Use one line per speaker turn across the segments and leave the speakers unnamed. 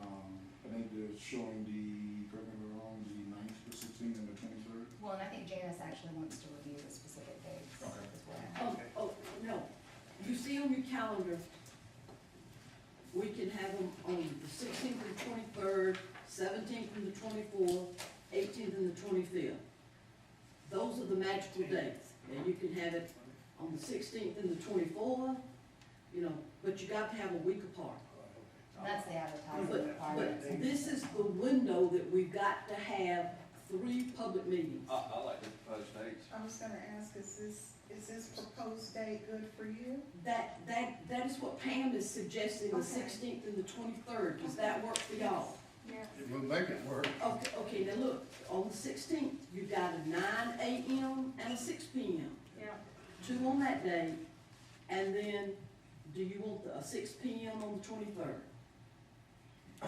Um, it's showing the, correct me if I'm wrong, the ninth, the sixteenth, and the twenty-third.
Well, and I think Janice actually wants to review the specific dates
Okay.
as well.
Oh, oh, no, you see on your calendar, we can have them on the sixteenth and twenty-third, seventeenth and the twenty-fourth, eighteenth and the twenty-fifth. Those are the magical dates, and you can have it on the sixteenth and the twenty-fourth, you know, but you got to have a week apart.
And that's the advertising
But,
requirement.
but this is the window that we've got to have three public meetings.
I, I like the proposed dates.
I was gonna ask, is this, is this proposed date good for you?
That, that, that is what Pam is suggesting, the
Okay.
sixteenth and the twenty-third, does that work for y'all?
Yeah.
We'll make it work.
Okay, okay, now look, on the sixteenth, you got a nine AM and a six PM,
Yeah.
two on that day, and then, do you want a six PM on the twenty-third?
I-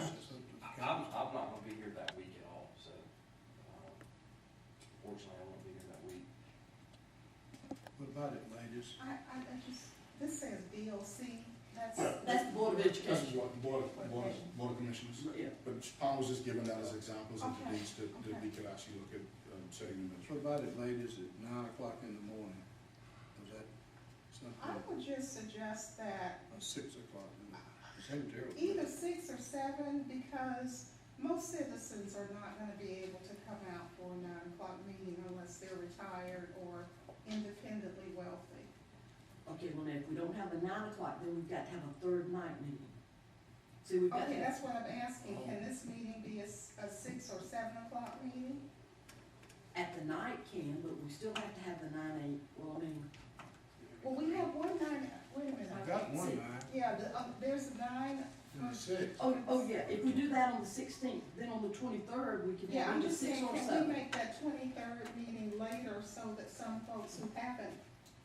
I'm, I'm not gonna be here that week at all, so, um, fortunately, I won't be here that week.
What about it, ladies?
I, I, I just, this says BOC, that's.
That's the Board of
That's
Education,
what, Board, of- Board, of- Board of Commissioners.
yeah,
But Tom was just giving that as examples of the
Okay,
dates that, that we could actually look at, um, setting them as.
What about it, ladies, at nine o'clock in the morning? Is that
I
something,
would just suggest that
or six o'clock? in the- Is that terrible?
either six or seven, because most citizens are not gonna be able to come out for a nine o'clock meeting unless they're retired or independently wealthy.
okay, well, now, if we don't have a nine o'clock, then we've got to have a third night meeting. See, we've got Oh. to
Okay,
have
that's what I'm asking, can this meeting be a, s- a six or seven o'clock meeting?
At the night can, but we still have to have the nine eight, well, I mean,
Well, we have one nine, wait a minute.
I got one nine,
Yeah, the, um, there's a nine, um,
and a six.
oh, oh, yeah, if we do that on the sixteenth, then on the twenty-third, we can
yeah,
have
I'm
either
just
six
saying,
or
can we
seven.
make that twenty-third meeting later so that some folks who haven't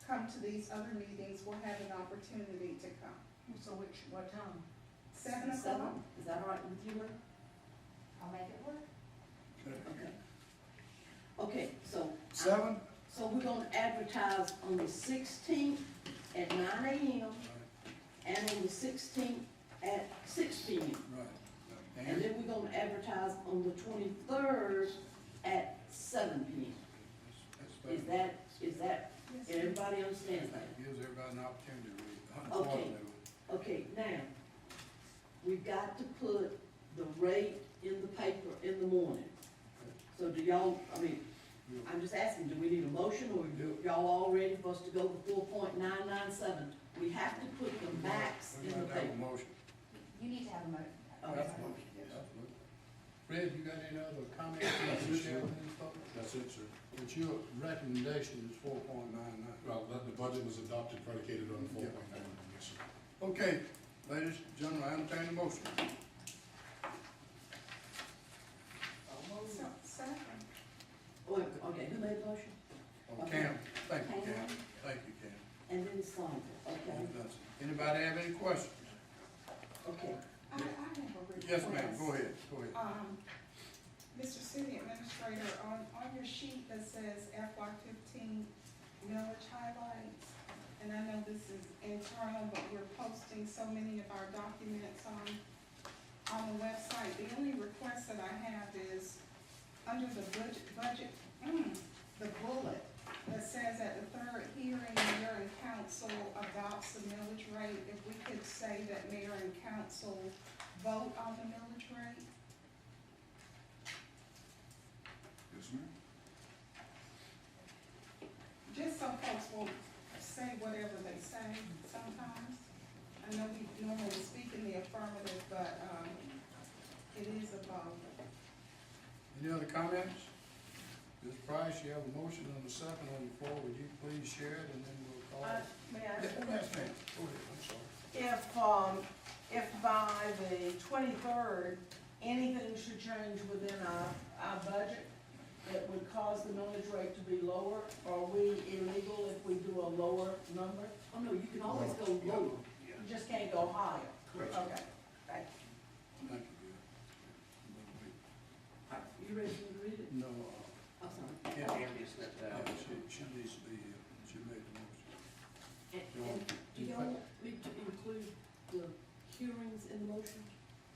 come to these other meetings will have an opportunity to come?
So which, what time?
Seven
Seven,
o'clock?
is that all right with you, Lynn?
I'll make it work.
Okay. Okay, so,
Seven?
so we're gonna advertise on the sixteenth at nine AM and on the sixteenth at six PM.
Right.
And
And
then we're gonna advertise on the twenty-third at seven PM. Is that, is that,
Yes, ma'am.
everybody understands that?
Gives everybody an opportunity to read.
Okay. Okay, now, we've got to put the rate in the paper in the morning. So do y'all, I mean, I'm just asking, do we need a motion or do y'all all ready for us to go to four point nine nine seven? We have to put the max
We
in the
might have a
paper.
motion.
You need to have a mo,
Oh,
That's
okay.
a motion, absolutely. Fred, you got any other comments? about this here?
That's it, sir.
But your recommendation is four point nine nine.
Well, that, the budget was adopted predicated on four point nine, yes, sir.
Okay, ladies, and gentlemen, I entertain a motion.
So, seven.
Oh, okay, who made the motion?
Oh, Cam, thank you, Cam,
Pam.
thank you, Cam.
And then Sonia, okay,
You've done some. Anybody have any questions?
okay.
I, I have a request.
Yes, ma'am, go ahead, go ahead.
Um, Mr. City Administrator, on, on your sheet that says FY fifteen millage highlights, and I know this is internal, but we're posting so many of our documents on, on the website. The only request that I have is, under the budget, budget, mm, the bullet that says at the third hearing, mayor and council adopts the millage rate, if we could say that mayor and council vote on the millage rate?
Yes, ma'am.
Just some folks will say whatever they say sometimes. I know we normally speak in the affirmative, but, um, it is a vote.
Any other comments? Ms. Price, you have a motion on the second on the floor, would you please share it, and then we'll call.
Uh,
it?
may
Yeah,
I,
Yes, ma'am, go ahead, I'm sorry.
if, um, if by the twenty-third, anything should change within our, our budget that would cause the millage rate to be lower, are we illegal if we do a lower number?
Oh, no, you can always go lower.
You just can't go higher.
Correct.
Okay, thank you.
Thank you,
You ready to read it?
Bill. No, uh,
I'm sorry.
Cam,
Andrea stepped
yeah,
out.
she, she needs to be here, she made the motion.
And, and do y'all want me to include the hearings in the motion?